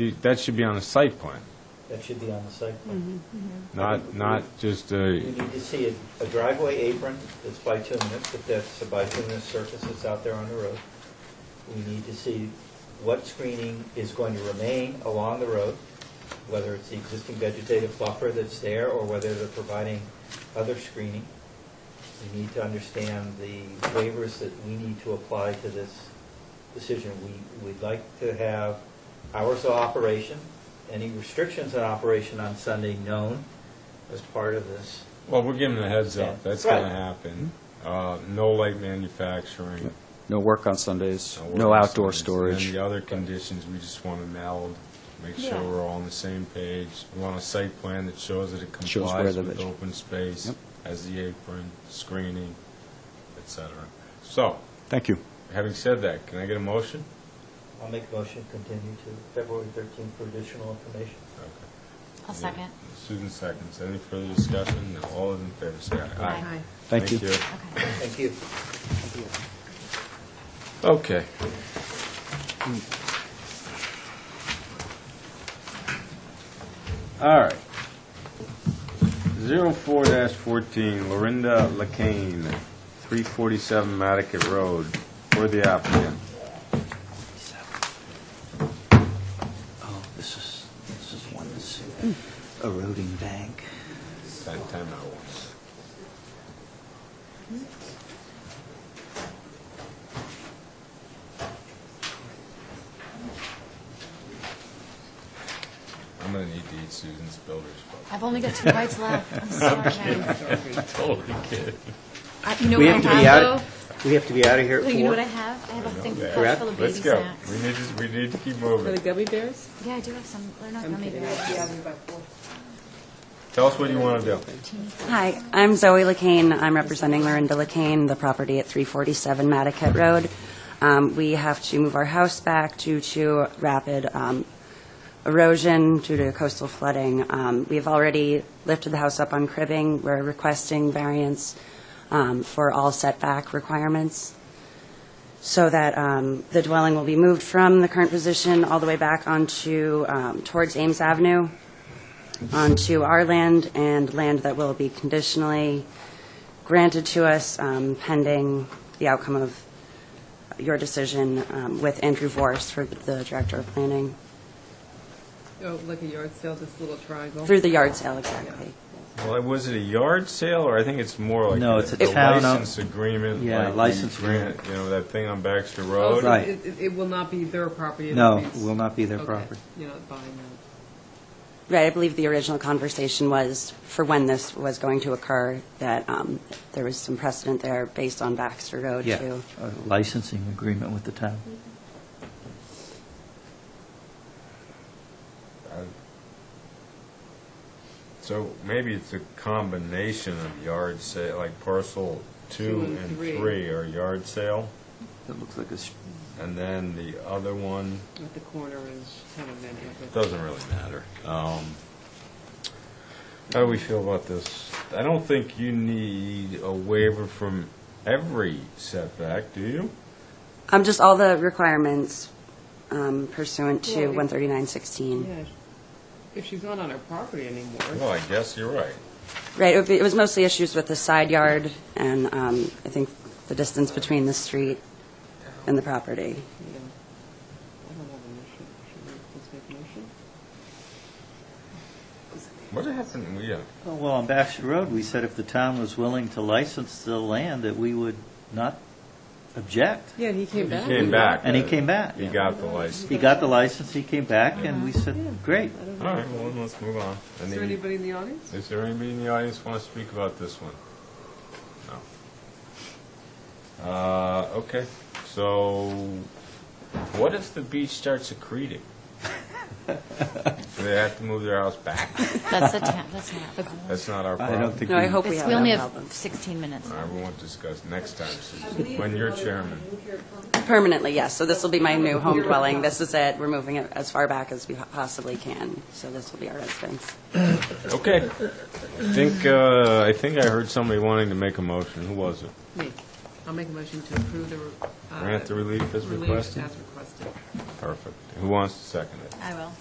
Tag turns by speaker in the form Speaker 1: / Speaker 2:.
Speaker 1: You- That should be on a site plan,
Speaker 2: That should be on the site plan.
Speaker 1: not, not just
Speaker 2: You
Speaker 1: a,
Speaker 2: need to see a- a driveway apron that's bituminous, if that's a bituminous surface that's out there on the road. We need to see what screening is going to remain along the road, whether it's the existing vegetative buffer that's there or whether they're providing other screening. We need to understand the waivers that we need to apply to this decision. We, we'd like to have hours of operation, any restrictions on operation on Sunday known as part of this.
Speaker 1: well, we're giving a heads up, that's
Speaker 2: Right.
Speaker 1: going to happen. Uh, No light manufacturing.
Speaker 3: No work on Sundays,
Speaker 1: work
Speaker 3: no
Speaker 1: on
Speaker 3: outdoor
Speaker 1: Sundays. And then
Speaker 3: storage.
Speaker 1: the other conditions, we just want to meld, make sure
Speaker 4: Yeah.
Speaker 1: we're all on the same page. We want a site plan that shows that it
Speaker 3: Shows where
Speaker 1: complies
Speaker 3: the
Speaker 1: with
Speaker 3: veg-
Speaker 1: open space,
Speaker 3: Yep.
Speaker 1: as the apron, screening, et cetera. So,
Speaker 3: Thank you.
Speaker 1: having said that, can I get a motion?
Speaker 2: I'll make a motion to continue to February 13th for additional information.
Speaker 1: Okay.
Speaker 4: I'll second.
Speaker 1: Susan seconds. Any further discussion? No. All those in favor say aye.
Speaker 4: Aye.
Speaker 3: Thank you.
Speaker 4: Okay.
Speaker 2: Thank you.
Speaker 1: Okay. All right. 04-14, Lorinda Lacane, 347 Matticat Road, for the applicant.
Speaker 2: Oh, this is, this is one that's eroding bank.
Speaker 1: Time time out once. I'm gonna need to eat Susan's builder's book.
Speaker 4: I've only got two bites left. I'm sorry, Jen.
Speaker 1: Totally kidding.
Speaker 4: I- You know
Speaker 2: We
Speaker 4: what I
Speaker 2: have to be out-
Speaker 4: have,
Speaker 2: We have to be out of here at
Speaker 4: though? Like, You know what I
Speaker 2: four.
Speaker 4: have? I have a
Speaker 1: know
Speaker 4: thing
Speaker 1: that.
Speaker 4: packed full of baby
Speaker 1: Let's go. We
Speaker 4: snacks.
Speaker 1: need to, we need to keep
Speaker 5: For the
Speaker 1: moving.
Speaker 5: gummy bears?
Speaker 4: Yeah, I do have some, they're not gummy bears.
Speaker 1: Tell us what you want to do.
Speaker 6: Hi, I'm Zoe Lacane. I'm representing Lorinda Lacane, the property at 347 Matticat Road. Um, We have to move our house back due to rapid um, erosion due to coastal flooding. Um, We've already lifted the house up on cribbing. We're requesting variance um, for all setback requirements so that um, the dwelling will be moved from the current position all the way back onto, um, towards Ames Avenue onto our land and land that will be conditionally granted to us um, pending the outcome of your decision um, with Andrew Vorst for the Director of Planning,
Speaker 5: Oh, like a yard sale, this little triangle.
Speaker 6: through the yard sale, exactly.
Speaker 1: Well, was it a yard sale, or I think it's more like
Speaker 2: No,
Speaker 1: a,
Speaker 2: it's a
Speaker 1: the
Speaker 2: town o-
Speaker 1: license agreement?
Speaker 2: Yeah,
Speaker 1: like
Speaker 2: license
Speaker 1: we grant, You know that thing on Baxter
Speaker 5: Oh,
Speaker 1: Road.
Speaker 5: so
Speaker 2: Right.
Speaker 5: It, it- it will not be their property.
Speaker 2: No,
Speaker 5: it'll be-
Speaker 2: will not be their
Speaker 5: okay,
Speaker 2: property.
Speaker 5: You're not buying that.
Speaker 6: Right, I believe the original conversation was for when this was going to occur, that um, there was some precedent there based on Baxter Road,
Speaker 2: Yeah,
Speaker 6: too.
Speaker 2: a licensing agreement with the town.
Speaker 1: I- So maybe it's a combination of yard sale, like parcel two
Speaker 5: Two and
Speaker 1: and
Speaker 5: three.
Speaker 1: three are yard sale,
Speaker 2: It looks like it's,
Speaker 1: and then the other one,
Speaker 5: At the corner is kind of meant
Speaker 1: it
Speaker 5: like a.
Speaker 1: doesn't really matter. Um, How do we feel about this? I don't think you need a waiver from every setback, do you?
Speaker 6: Um, Just all the requirements um, pursuant to
Speaker 5: Well, it-
Speaker 6: 13916.
Speaker 5: Yeah. If she's not on her property
Speaker 1: Well,
Speaker 5: anymore,
Speaker 1: I guess you're right.
Speaker 6: Right, it would be- it was mostly issues with the side yard and um, I think the distance between the street and the property.
Speaker 5: you know, I don't have a motion. Should we, let's make a
Speaker 1: What
Speaker 5: motion?
Speaker 1: happened, uh, yeah,
Speaker 2: Oh, well, on Baxter Road, we said if the town was willing to license the land, that we would not object.
Speaker 5: Yeah, he came back.
Speaker 1: came back.
Speaker 2: And he came back.
Speaker 1: He got the license.
Speaker 2: He got the license, he came back, and we said, great.
Speaker 5: I don't
Speaker 1: All right,
Speaker 5: know.
Speaker 1: well, then let's move on. I
Speaker 5: Is there
Speaker 1: need-
Speaker 5: anybody in the audience?
Speaker 1: Is there anybody in the audience want to speak about this one? No. Uh, okay, so what if the beach starts accreting? Do they have to move their house back?
Speaker 4: That's the, ta- that's not. a problem.
Speaker 1: That's not our
Speaker 3: I
Speaker 1: problem.
Speaker 3: don't think
Speaker 6: No, I
Speaker 3: we
Speaker 6: hope we
Speaker 4: It's-
Speaker 6: have
Speaker 4: We only
Speaker 6: no
Speaker 4: have
Speaker 6: problems.
Speaker 4: 16 minutes.
Speaker 1: All right, we won't discuss next time, Susan, when you're chairman.
Speaker 6: Permanently, yes, so this will be my new home dwelling. This is it, we're moving it as far back as we possibly can, so this will be our residence.
Speaker 1: Okay. I think, uh, I think I heard somebody wanting to make a motion. Who was it?
Speaker 5: Me. I'll make a motion to approve the. uh,
Speaker 1: Grant the relief as
Speaker 5: relief
Speaker 1: requested?
Speaker 5: as requested.
Speaker 1: Perfect. Who wants to second it?
Speaker 4: I will.